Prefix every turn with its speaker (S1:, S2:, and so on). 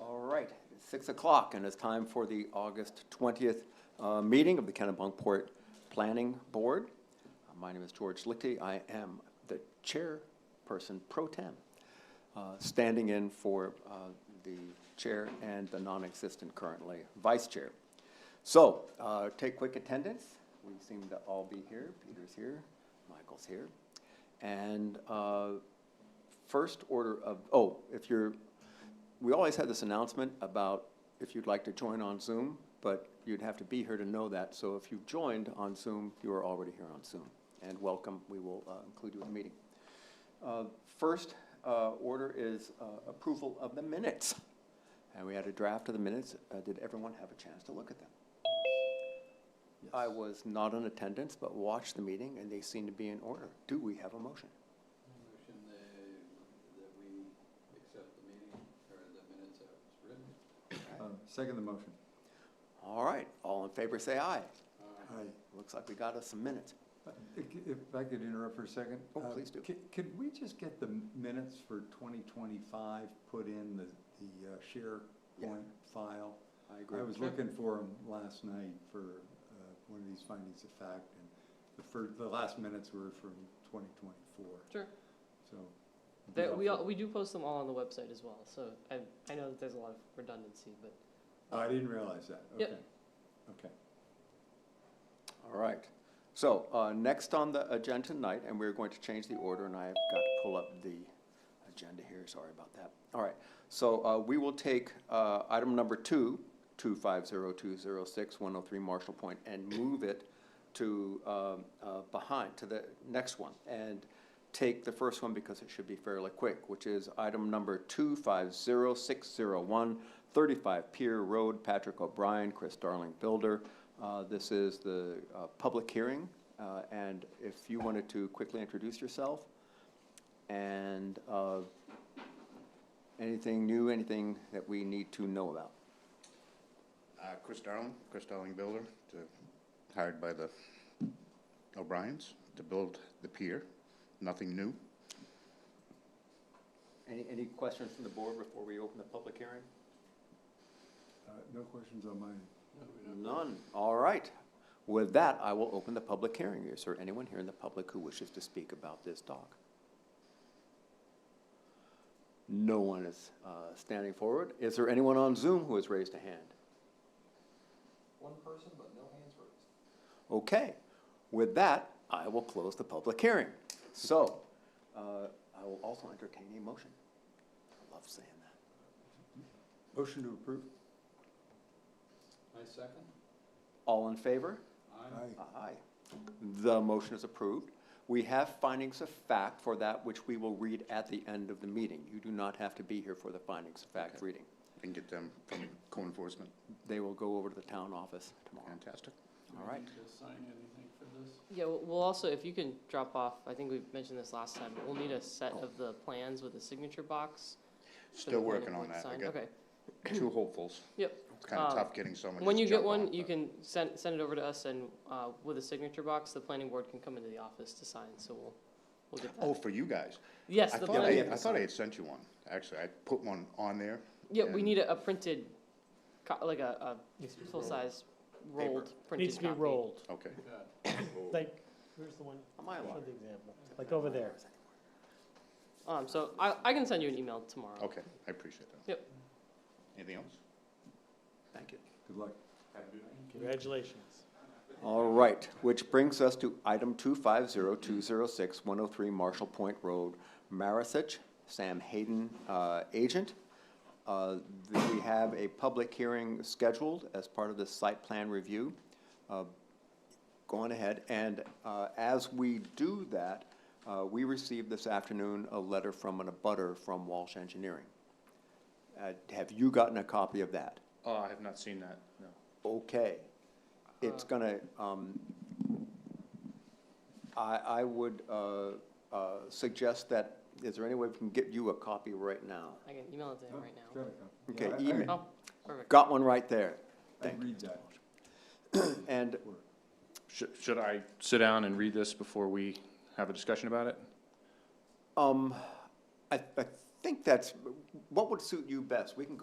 S1: All right, it's six o'clock, and it's time for the August twentieth, uh, meeting of the Kennebunkport Planning Board. Uh, My name is George Lichty. I am the chairperson pro tem, uh, standing in for, uh, the chair and the non-existent currently vice chair. So, uh, take quick attendance. We seem to all be here. Peter's here, Michael's here. And, uh, first order of, oh, if you're, we always had this announcement about if you'd like to join on Zoom, but you'd have to be here to know that. So if you joined on Zoom, you are already here on Zoom. And welcome, we will uh, include you in the meeting. Uh, First uh, order is uh, approval of the minutes. And we had a draft of the minutes. Uh, Did everyone have a chance to look at them? I was not in attendance, but watched the meeting, and they seemed to be in order. Do we have a motion?
S2: Motion that, that we accept the meeting, or the minutes as written.
S3: Um, Second the motion.
S1: All right, all in favor, say aye.
S2: Uh,
S3: Aye.
S1: Looks like we got us some minutes.
S3: Uh, If I could interrupt for a second?
S1: Oh,
S3: uh,
S1: please do.
S3: c- Could we just get the minutes for 2025 put in the, the uh, SharePoint file?
S1: I
S3: I was looking for them last night for uh, one of these findings of fact, and the first, the last minutes were from 2024,
S4: Sure.
S3: so. it'd be
S4: That, we, all-
S3: helpful.
S4: we do post them all on the website as well, so I, I know that there's a lot of redundancy, but
S3: Oh, I didn't realize that,
S4: Yep.
S3: okay. Okay.
S1: All right. So, uh, next on the agenda tonight, and we're going to change the order, and I've got to pull up the agenda here, sorry about that. All right, so, uh, we will take, uh, item number two, two five zero two zero six one oh three Marshall Point, and move it to, um, uh, behind, to the next one. And take the first one because it should be fairly quick, which is item number two five zero six zero one, thirty-five Pier Road, Patrick O'Brien, Chris Darling Builder. Uh, This is the uh, public hearing, uh, and if you wanted to quickly introduce yourself and uh, anything new, anything that we need to know about.
S5: Uh, Chris Darling, Chris Darling Builder, to- hired by the O'Briens to build the pier. Nothing new.
S1: Any, any questions from the board before we open the public hearing?
S3: Uh, No questions on mine.
S1: None, all right. With that, I will open the public hearing. Is there anyone here in the public who wishes to speak about this dock? No one is uh, standing forward. Is there anyone on Zoom who has raised a hand?
S2: One person, but no hands raised.
S1: Okay, with that, I will close the public hearing. So, uh, I will also entertain a motion. I love saying that.
S3: Motion to approve?
S2: I second.
S1: All in favor?
S2: Aye.
S1: Aye. The motion is approved. We have findings of fact for that which we will read at the end of the meeting. You do not have to be here for the findings of fact
S5: Okay.
S1: reading.
S5: Can get them from co-enforcement.
S1: They will go over to the town office tomorrow.
S5: Fantastic.
S1: All right.
S2: Do we need to sign anything for this?
S4: yeah, we'll we'll also, if you can drop off, I think we mentioned this last time, but we'll need a set of the plans with a signature box. for the
S5: Still
S4: planning
S5: working on
S4: board to
S5: that. I
S4: sign.
S5: got
S4: Okay,
S5: two hopefuls.
S4: yep.
S5: It's kind of
S4: Um,
S5: tough getting someone.
S4: When
S5: to
S4: you get
S5: jump on
S4: one,
S5: it,
S4: you
S5: but
S4: can send, send it over to us and, uh, with a signature box, the planning board can come into the office to sign, so we'll, we'll get
S5: Oh,
S4: that.
S5: for you guys.
S4: Yes,
S5: I
S4: the
S5: thought I,
S4: planning.
S5: had- I thought I had sent you one. Actually, I put one on there.
S4: Yeah, we
S5: and-
S4: need a a printed, co- like a, a full-size rolled printed copy.
S6: Needs to be rolled,
S5: Okay.
S2: Got it.
S6: like, where's the one,
S1: Am I
S6: show
S1: allowed?
S6: the example, like over there.
S4: Um, so I, I can send you an email tomorrow.
S5: Okay, I appreciate that.
S4: Yep.
S5: Anything else?
S1: Thank you.
S3: Good luck.
S6: Congratulations.
S1: All right, which brings us to item 250-206-103 Marshall Point Road, Marisich, Sam Hayden, uh, agent. Uh, th- We have a public hearing scheduled as part of the site plan review. Uh, Go on ahead, and uh, as we do that, uh, we received this afternoon a letter from an abutter from Walsh Engineering. Uh, Have you gotten a copy of that?
S7: Oh, I have not seen that, no.
S1: okay, it's gonna, um, I, I would, uh, uh, suggest that, is there any way we can get you a copy right now?
S4: I can email it to him right now.
S1: Okay,
S3: Yeah, I- I-
S1: email.
S4: Oh, perfect.
S1: Got one right there,
S3: I
S1: Thank
S3: read that.
S1: and
S7: Should, should I sit down and read this before we have a discussion about it?
S1: Um, I, I think that's, what would suit you best? We can go